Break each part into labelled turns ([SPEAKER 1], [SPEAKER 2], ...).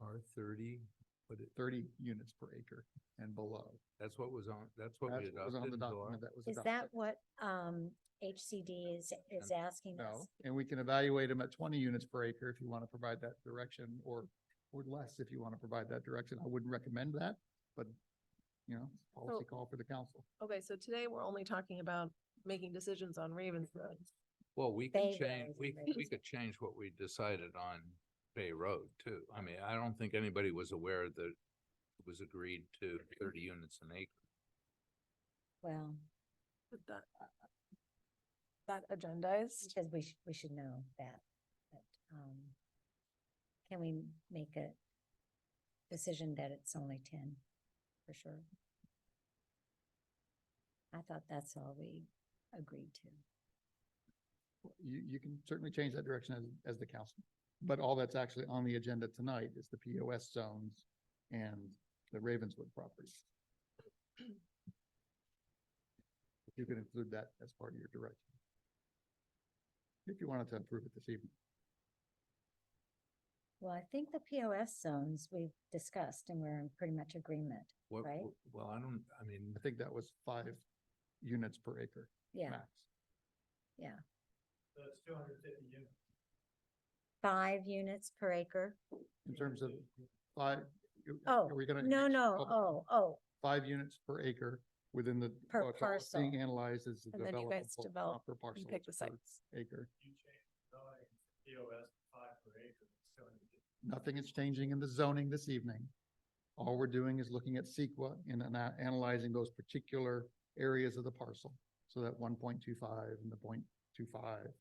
[SPEAKER 1] are thirty, but it,
[SPEAKER 2] thirty units per acre and below.
[SPEAKER 1] that's what was on, that's what we
[SPEAKER 2] That's what was on
[SPEAKER 1] adopted.
[SPEAKER 2] the
[SPEAKER 1] Laura.
[SPEAKER 2] document that was
[SPEAKER 3] Is
[SPEAKER 2] adopted.
[SPEAKER 3] that what, um, HCD is, is asking us?
[SPEAKER 2] No, and we can evaluate them at twenty units per acre if you want to provide that direction or, or less if you want to provide that direction. I wouldn't recommend that, but you know, policy call for the council.
[SPEAKER 4] Okay, so today we're only talking about making decisions on Ravens Road.
[SPEAKER 1] Well, we can
[SPEAKER 3] Bay
[SPEAKER 1] change,
[SPEAKER 3] Road
[SPEAKER 1] we,
[SPEAKER 3] and
[SPEAKER 1] we
[SPEAKER 3] Ravens.
[SPEAKER 1] could change what we decided on Bay Road too. I mean, I don't think anybody was aware that it was agreed to thirty units an acre.
[SPEAKER 3] Well,
[SPEAKER 4] But that, that agendized,
[SPEAKER 3] because we should, we should know that, but, um, can we make a decision that it's only ten, for sure? I thought that's all we agreed to.
[SPEAKER 2] You, you can certainly change that direction as, as the council. But all that's actually on the agenda tonight is the POS zones and the Ravenswood property. You can include that as part of your direction. If you wanted to approve it this evening.
[SPEAKER 3] Well, I think the POS zones we've discussed and we're in pretty much agreement.
[SPEAKER 1] What,
[SPEAKER 3] Right.
[SPEAKER 1] wh- well, I don't, I mean,
[SPEAKER 2] I think that was five units per acre
[SPEAKER 3] Yeah,
[SPEAKER 2] max.
[SPEAKER 5] That's two hundred fifty units.
[SPEAKER 3] five units per acre.
[SPEAKER 2] In terms of five. you-
[SPEAKER 3] Oh,
[SPEAKER 2] are we gonna
[SPEAKER 3] No,
[SPEAKER 2] mix
[SPEAKER 3] no,
[SPEAKER 2] up
[SPEAKER 3] oh, oh,
[SPEAKER 2] Five units per acre within the.
[SPEAKER 3] Per
[SPEAKER 2] what's all Being
[SPEAKER 3] parcel.
[SPEAKER 2] analyzed as the
[SPEAKER 4] And then you
[SPEAKER 2] development.
[SPEAKER 4] guys develop
[SPEAKER 2] Per
[SPEAKER 4] you
[SPEAKER 2] parcel
[SPEAKER 4] pick
[SPEAKER 2] per
[SPEAKER 4] the sites.
[SPEAKER 2] acre.
[SPEAKER 5] You change zoning, POS five per acre, it's two hundred fifty.
[SPEAKER 2] Nothing is changing in the zoning this evening. All we're doing is looking at CEQA and ana- analyzing those particular areas of the parcel. So that one point two five and the point two five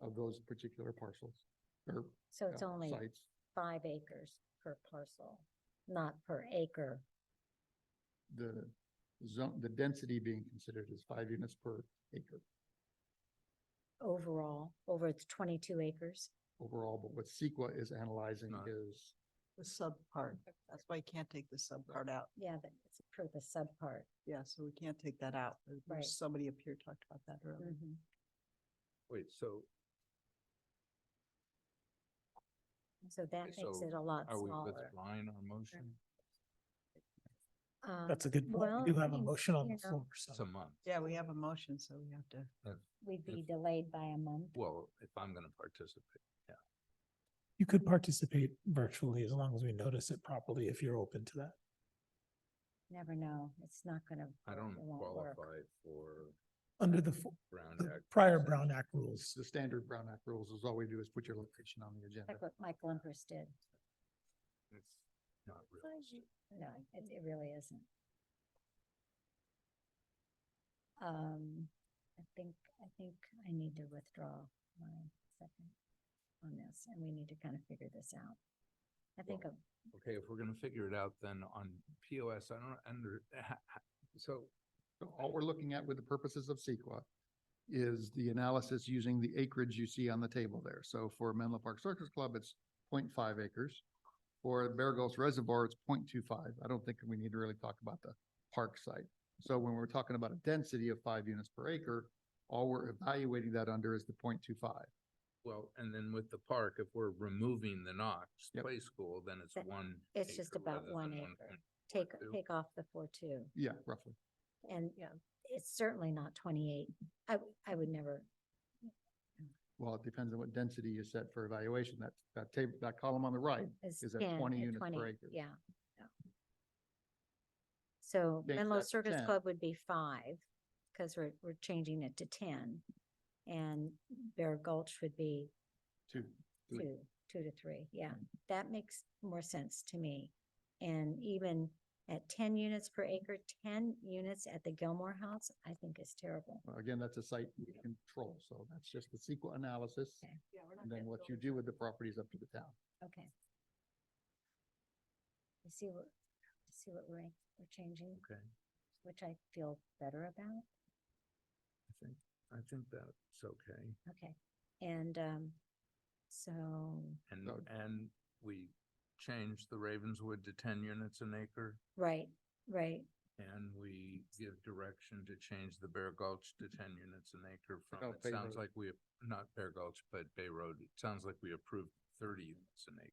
[SPEAKER 2] of those particular parcels or
[SPEAKER 3] so it's
[SPEAKER 2] uh,
[SPEAKER 3] only
[SPEAKER 2] sites.
[SPEAKER 3] five acres per parcel, not per acre.
[SPEAKER 2] the zone, the density being considered is five units per acre
[SPEAKER 3] overall, over its twenty-two acres.
[SPEAKER 2] overall, but what CEQA is analyzing
[SPEAKER 1] Not-
[SPEAKER 2] is,
[SPEAKER 6] The sub part, that's why you can't take the sub part out.
[SPEAKER 3] Yeah, but it's for the subpart.
[SPEAKER 6] Yeah, so we can't take that out. There-
[SPEAKER 3] Right. Mm.
[SPEAKER 6] There's somebody up here talked about that earlier.
[SPEAKER 1] wait, so
[SPEAKER 3] So that makes
[SPEAKER 1] so
[SPEAKER 3] it a lot
[SPEAKER 1] are we
[SPEAKER 3] smaller.
[SPEAKER 1] withdrawing our motion?
[SPEAKER 3] Um,
[SPEAKER 7] That's a good point.
[SPEAKER 3] well,
[SPEAKER 7] We do
[SPEAKER 3] I
[SPEAKER 7] have a
[SPEAKER 3] mean,
[SPEAKER 7] motion on
[SPEAKER 3] you
[SPEAKER 7] the
[SPEAKER 3] know,
[SPEAKER 7] floor, so.
[SPEAKER 1] It's a month.
[SPEAKER 6] Yeah, we have a motion, so we have to.
[SPEAKER 3] We'd be
[SPEAKER 1] if-
[SPEAKER 3] delayed by a month.
[SPEAKER 1] Well, if I'm gonna participate,
[SPEAKER 7] You could participate virtually as long as we notice it properly if you're open to that.
[SPEAKER 3] Never know. It's not gonna.
[SPEAKER 1] I
[SPEAKER 3] work.
[SPEAKER 1] don't
[SPEAKER 3] It won't work.
[SPEAKER 1] qualify for
[SPEAKER 7] Under the fo-
[SPEAKER 1] Brown
[SPEAKER 7] the
[SPEAKER 1] Act.
[SPEAKER 7] prior
[SPEAKER 1] consent.
[SPEAKER 7] Brown Act rules,
[SPEAKER 2] the standard Brown Act rules is all we do is put your location on the agenda.
[SPEAKER 3] Like what Mike Lumpers did.
[SPEAKER 1] It's Not realistic.
[SPEAKER 3] No, it, it really isn't. Um, I think, I think I need to withdraw my second on this and we need to kind of figure this out. I think
[SPEAKER 1] Well,
[SPEAKER 3] a
[SPEAKER 1] Okay, if we're gonna figure it out, then on POS, I don't under, ha- ha- so
[SPEAKER 2] So all we're looking at with the purposes of CEQA is the analysis using the acreage you see on the table there. So for Menlo Park Circus Club, it's 0.5 acres. For Bear Gulch Reservoir, it's 0.25. I don't think we need to really talk about the park site. So when we're talking about a density of five units per acre, all we're evaluating that under is the 0.25.
[SPEAKER 1] Well, and then with the park, if we're removing the Knox
[SPEAKER 2] Yep.
[SPEAKER 1] Play School, then it's
[SPEAKER 3] That-
[SPEAKER 1] one.
[SPEAKER 3] it's just
[SPEAKER 1] acre
[SPEAKER 3] about
[SPEAKER 1] rather
[SPEAKER 3] one
[SPEAKER 1] than
[SPEAKER 3] acre.
[SPEAKER 1] point-
[SPEAKER 3] take,
[SPEAKER 1] two.
[SPEAKER 3] take off the four two.
[SPEAKER 2] Yeah, roughly.
[SPEAKER 3] And
[SPEAKER 4] Yeah.
[SPEAKER 3] it's certainly not twenty-eight. I, w- I would never,
[SPEAKER 2] Well, it depends on what density you set for evaluation. That, that table, that column on the right
[SPEAKER 3] it's
[SPEAKER 2] Is that
[SPEAKER 3] 10
[SPEAKER 2] 20
[SPEAKER 3] at
[SPEAKER 2] units per
[SPEAKER 3] 20,
[SPEAKER 2] acre?
[SPEAKER 3] Yeah. yeah. So
[SPEAKER 2] Makes
[SPEAKER 3] Menlo
[SPEAKER 2] that
[SPEAKER 3] Circus
[SPEAKER 2] 10.
[SPEAKER 3] Club would be five, because we're, we're changing it to ten. And Bear Gulch would be
[SPEAKER 2] too. Three.
[SPEAKER 3] two, two to three, yeah.
[SPEAKER 2] Hmm.
[SPEAKER 3] That makes more sense to me. And even at ten units per acre, ten units at the Gilmore House, I think is terrible.
[SPEAKER 2] Well, Again, that's a site control, so that's just the SQL analysis,
[SPEAKER 3] Okay.
[SPEAKER 2] and then what you do with the property is up to the town.
[SPEAKER 3] Okay. You see what, you see what we're, we're changing,
[SPEAKER 1] Okay,
[SPEAKER 3] which I feel better about?
[SPEAKER 1] I think, I think that's okay.
[SPEAKER 3] Okay, and, um, so,
[SPEAKER 1] And,
[SPEAKER 2] So-
[SPEAKER 1] and we change the Ravenswood to ten units an acre.
[SPEAKER 3] right, right,
[SPEAKER 1] And we give direction to change the Bear Gulch to ten units an acre
[SPEAKER 2] No,
[SPEAKER 1] from, it
[SPEAKER 2] Oh, Bay
[SPEAKER 1] sounds
[SPEAKER 2] Road.
[SPEAKER 1] like we, not Bear Gulch, but Bay Road. It sounds like we approved thirty units an acre.